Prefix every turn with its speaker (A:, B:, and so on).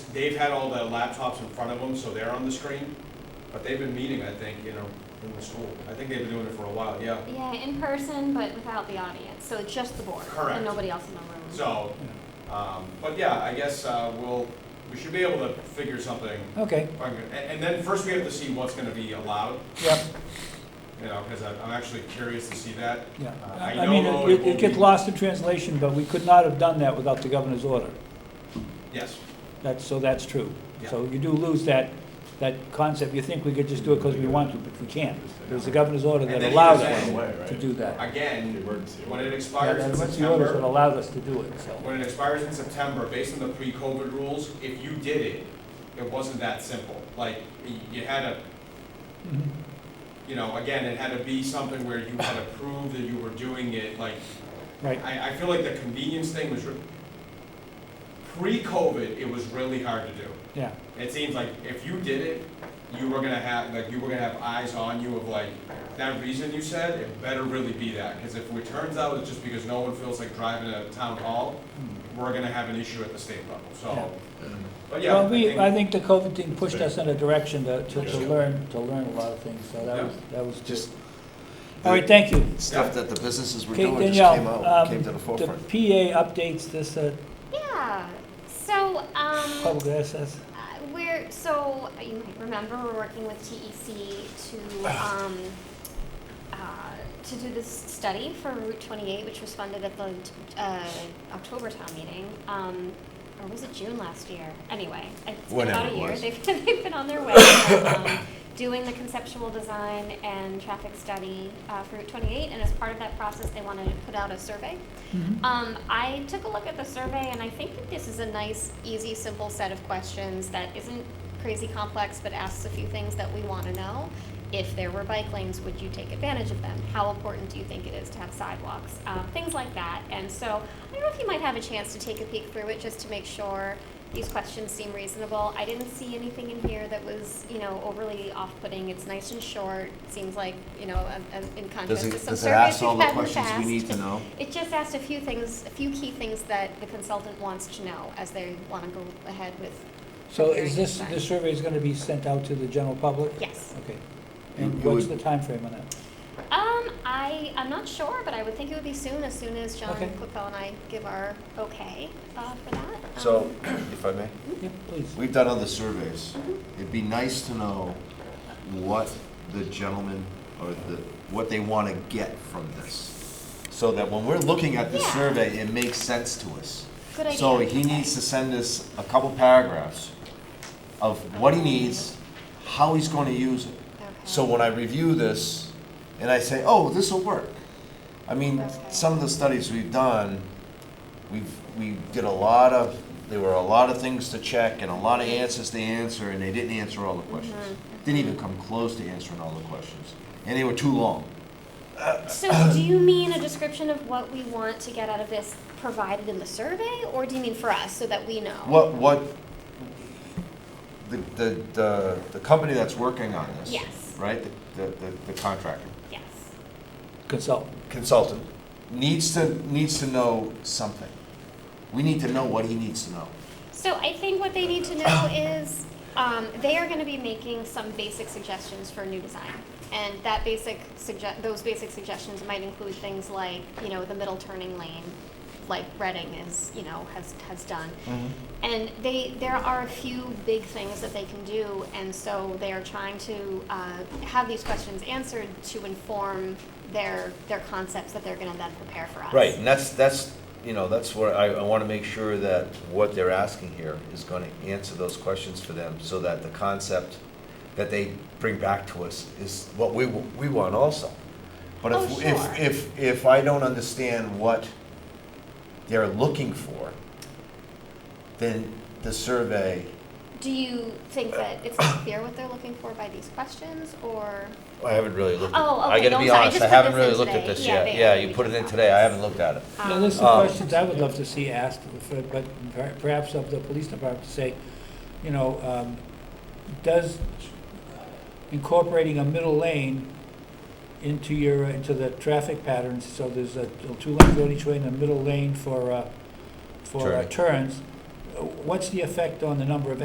A: they've had all their laptops in front of them, so they're on the screen, but they've been meeting, I think, you know, in the school. I think they've been doing it for a while, yeah.
B: Yeah, in person, but without the audience, so it's just the board.
A: Correct.
B: And nobody else in the room.
A: So, um, but yeah, I guess, uh, we'll, we should be able to figure something.
C: Okay,
A: if I can- And, and then first we have to see what's gonna be allowed,
C: yep,
A: you know, cause I'm, I'm actually curious to see that.
C: yeah.
A: Uh, I
C: I
A: know
C: mean,
A: though
C: it-
A: it
C: it
A: will
C: it gets
A: be-
C: lost in translation, but we could not have done that without the governor's order.
A: Yes,
C: That's, so that's true. So you do lose that, that concept. You think we could just do it because we want to, but we can't. It was the governor's order
A: And
C: that
A: then he
C: allowed
A: was saying-
C: us to do that.
A: again,
D: Emergency.
A: when it
C: Yeah,
A: expires in
C: that- That's the order that
A: September,
C: allowed us to do it, so.
A: when it expires in September, based on the pre-COVID rules, if you did it, it wasn't that simple. Like, y- you had a
C: Mhm.
A: you know, again, it had to be something where you had to prove that you were doing it, like,
C: Right.
A: I, I feel like the convenience thing was, re- pre-COVID, it was really hard to do.
C: Yeah,
A: It seems like if you did it, you were gonna have, like, you were gonna have eyes on you of like, that reason you said, it better really be that. Cause if it turns out it's just because no one feels like driving to town hall, we're gonna have an issue at the state level, so. But yeah,
C: well,
A: I
C: we,
A: think-
C: I think the COVID thing pushed us in a direction to, to to learn, to learn a lot of things, so that
A: Yeah.
C: was, that was good.
E: Just-
C: All right, thank you.
E: Stuff that the businesses were
C: Okay,
E: doing just
C: Danielle,
E: came
C: um,
E: out, came to the
C: The
E: forefront.
C: PA updates this, uh,
B: Yeah, so, um,
C: public access.
B: uh, we're, so, uh, you might remember, we're working with TEC to,
E: Ah.
B: um, uh, to do this study for Route twenty-eight, which was funded at the, uh, October town meeting, um, or was it June last year? Anyway, it's been
E: Whatever
B: about a
E: it
B: year,
E: was.
B: they've, they've been on their way, and, um, doing the conceptual design and traffic study, uh, for Route twenty-eight, and as part of that process, they wanted to put out a survey.
E: Mm-hmm.
B: Um, I took a look at the survey and I think that this is a nice, easy, simple set of questions that isn't crazy complex but asks a few things that we want to know. If there were bike lanes, would you take advantage of them? How important do you think it is to have sidewalks? Um, things like that. And so I don't know if you might have a chance to take a peek through it just to make sure these questions seem reasonable. I didn't see anything in here that was, you know, overly off-putting. It's nice and short. Seems like, you know, a, a, in contrast
E: Does
B: to
E: it,
B: some
E: does it
B: surveys
E: ask
B: we've
E: all the
B: had in the
E: questions we
B: past. Um,
E: need to know?
B: It just asked a few things, a few key things that the consultant wants to know as they want to go ahead with.
C: So
B: preparing
C: is this,
B: design.
C: this survey is gonna be sent out to the general public?
B: Yes.
C: Okay.
E: You-
C: And
E: you
C: what's the
E: would-
C: timeframe on that?
B: Um, I, I'm not sure, but I would think it would be soon, as soon as John
C: Okay.
B: Cookell and I give our okay uh, for that. Um,
E: So, if I may,
C: Yeah, please.
E: we've done other surveys. It'd be nice to know what the gentleman or the, what they want to get from this. So that when we're looking at this
B: Yeah.
E: survey, it makes sense to us.
B: Good idea.
E: So he needs to send us a couple paragraphs of what he needs, how he's going to use it.
B: Okay.
E: So when I review this and I say, oh, this'll work. I mean,
B: Okay.
E: some of the studies we've done, we've, we did a lot of, there were a lot of things to check and a lot of answers to answer, and they didn't answer all the
B: Mm-hmm.
E: questions. Didn't even come close to answering all the questions, and they were too long.
B: So do you mean a description of what we want to get out of this provided in the survey, or do you mean for us, so that we know?
E: What, what, the, the, the, the company that's working on this.
B: Yes.
E: Right, the, the, the contractor,
B: Yes.
C: Consultant.
E: consultant, needs to, needs to know something. We need to know what he needs to know.
B: So I think what they need to know is, um, they are gonna be making some basic suggestions for new design. And that basic sugge- those basic suggestions might include things like, you know, the middle turning lane, like Reading is, you know, has, has done. And they, there are a few big things that they can do, and so they are trying to, uh, have these questions answered to inform their, their concepts that they're gonna then prepare for us.
E: Right, and that's, that's, you know, that's where I, I want to make sure that what they're asking here is going to answer those questions for them, so that the concept that they bring back to us is what we, w- we want also. But
B: Oh,
E: if,
B: sure.
E: if, if, if I don't understand what they're looking for, then the survey,
B: Do you think that it's not clear what they're looking for by these questions, or?
E: I haven't really looked. at-
B: Oh, okay,
E: I
B: no,
E: gotta
B: I'm
E: be
B: sorry, I
E: honest,
B: just
E: I
B: put
E: haven't
B: this
E: really
B: in
E: looked
B: today.
E: at this
B: Yeah,
E: yet.
B: they
E: Yeah,
B: are.
E: you
B: We
E: put it
B: just
E: in
B: got
E: today, I
B: this.
E: haven't looked at it.
C: Now, there's some
E: Um,
C: questions I would love to see asked, for- but per- perhaps of the police department to say, you know, um, does incorporating a middle lane into your, uh, into the traffic patterns, so there's a, two lanes on each way and a middle lane for, uh, for uh, turns, uh, what's the effect on the number of